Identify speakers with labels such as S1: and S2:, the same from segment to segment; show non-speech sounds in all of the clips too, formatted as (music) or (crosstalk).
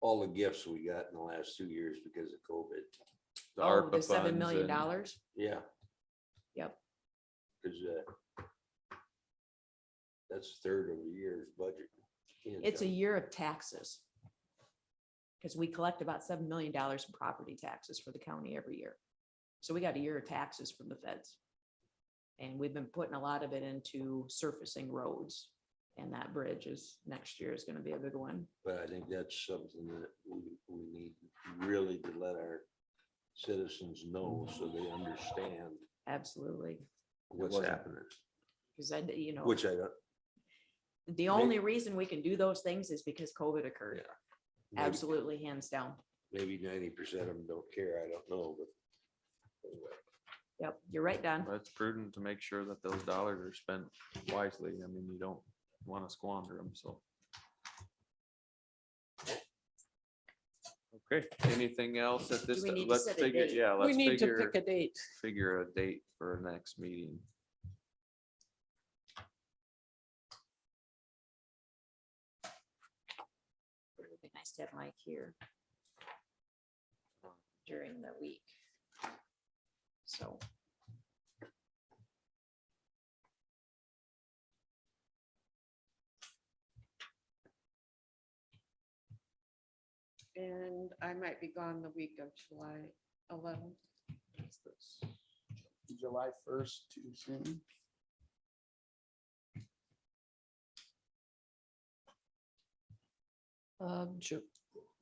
S1: all the gifts we got in the last two years because of COVID.
S2: The
S3: Oh,
S2: ARPA
S3: the seven
S2: funds
S3: million
S2: and-
S3: dollars?
S1: Yeah.
S3: Yep.
S1: Cause, uh, that's a third of the year's budget. Can't
S3: It's a
S1: tell.
S3: year of taxes. Because we collect about seven million dollars in property taxes for the county every year. So we got a year of taxes from the feds. And we've been putting a lot of it into surfacing roads. And that bridge is, next year is gonna be a big one.
S1: But I think that's something that we, we need really to let our citizens know so they understand
S3: Absolutely.
S1: what's
S2: wasn't-
S1: happening,
S3: Because I, you know,
S1: which I don't.
S3: the only reason we can do those things is because COVID occurred.
S1: Yeah. maybe-
S3: Absolutely, hands down.
S1: Maybe ninety percent of them don't care. I don't know, but.
S3: Yep, you're right, Don.
S2: That's prudent to make sure that those dollars are spent wisely. I mean, you don't want to squander them, so. Okay, anything else at this,
S3: we need to
S2: let's
S3: set a
S2: figure,
S3: date?
S2: yeah,
S4: We
S2: let's
S4: need to
S2: figure,
S4: pick a date.
S2: figure a date for next meeting.
S3: It would be nice to have Mike here um, during the week. So.
S4: And I might be gone the week of July eleventh.
S5: July first too soon.
S4: Uh, Ju-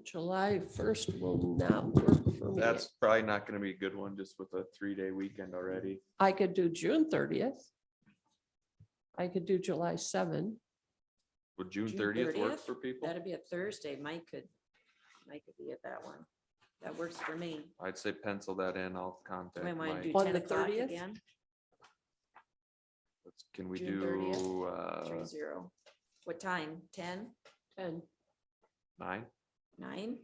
S4: July first will not work for me.
S2: That's probably not gonna be a good one, just with a three-day weekend already.
S4: I could do June thirtieth. I could do July seven.
S2: Would June
S3: June
S2: thirtieth work
S3: 30th?
S2: for people?
S3: That'd be a Thursday. Mike could, Mike could be at that one. That works for me.
S2: I'd say pencil that in. I'll
S3: Do I
S2: contact
S3: want to do
S2: Mike.
S4: On
S3: ten
S4: the
S3: o'clock
S4: 30th?
S3: again?
S2: Let's- Can we
S3: June 30th?
S2: do, uh,
S3: Three zero. What time? Ten?
S4: And
S2: nine?
S3: Nine?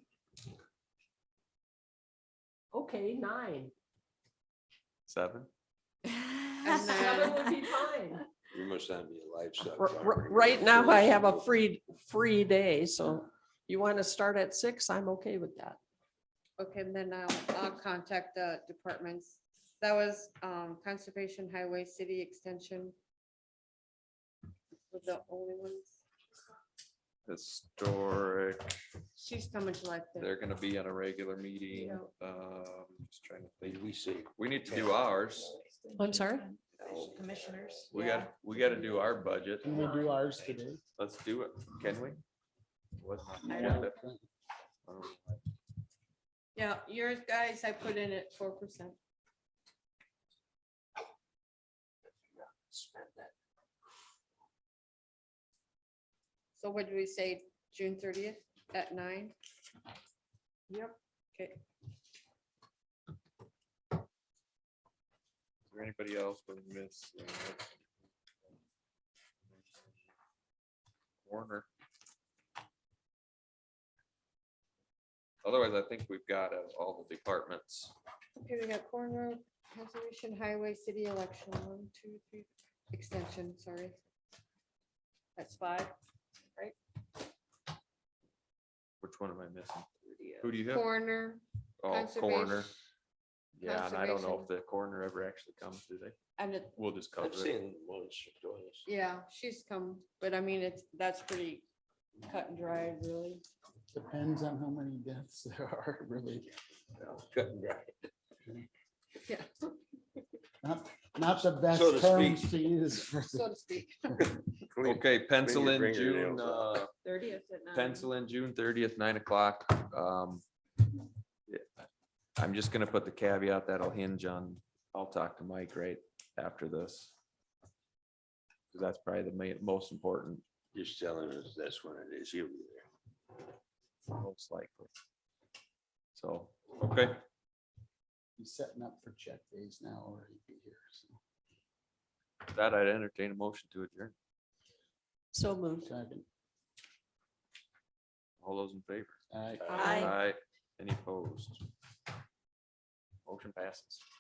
S4: okay, nine.
S2: Seven?
S4: Seven
S3: (laughs)
S4: would (laughs) be fine.
S1: You must not be a livestock.
S4: R-
S1: farmer.
S4: r-
S1: You're
S4: Right
S1: not
S4: now, I
S1: sure.
S4: have a free, free day, so you want to start at six, I'm okay with that.
S6: Okay, and then I'll, I'll contact the departments. That was, um, Conservation Highway City Extension. Were the only ones.
S2: Historic,
S6: She's coming to life there.
S2: they're gonna be on a regular meeting. Um, just trying to think.
S1: Maybe We see.
S2: We need to do ours.
S4: I'm sorry?
S3: Commissioners.
S2: Oh. We
S3: yeah.
S2: got, we gotta do our budget.
S5: Can we do ours today?
S2: Let's do it. Can we? What's on the
S6: I don't-
S2: agenda? I don't know.
S6: Yeah, yours, guys, I put in at four percent. So what did we say, June thirtieth at nine? Yep. Okay.
S2: Is there anybody else uh, we missed? Warner. Otherwise, I think we've got uh, all the departments.
S6: Okay, we got Corn Road, Conservation Highway, City Election, one, two, three, extension, sorry. That's five.
S2: Which one am I missing? Who do you have?
S6: Corner,
S2: Oh, coroner.
S6: Conservation-
S2: Yeah, and I don't know if the coroner ever actually comes, do they?
S6: and it,
S2: We'll just cover
S1: I've
S2: it.
S1: seen once or twice.
S6: yeah, she's come, but I mean, it's, that's pretty cut and dry, really.
S5: Depends on how many deaths (laughs) there are, really.
S1: (laughs) Cut and dry.
S5: Not, not the best
S1: So to
S5: terms
S1: speak.
S5: to use for
S6: So to speak.
S2: Okay, pencil in June,
S1: fingernails
S2: uh,
S6: Thirtieth at nine.
S2: pencil in June thirtieth, nine o'clock. Um, yeah, I'm just gonna put the caveat that'll hinge on, I'll talk to Mike right after this. 'Cause That's probably the ma- most important,
S1: Just telling us that's when it is. He'll be there.
S2: most likely. So, okay,
S5: He's setting up for check days now or he'd be here. so.
S2: with that I'd entertain a motion to adjourn.
S4: So moved.
S5: Second,
S2: All those in favor?
S5: all right.
S3: Aye.
S2: Aye. Any opposed? Motion passes.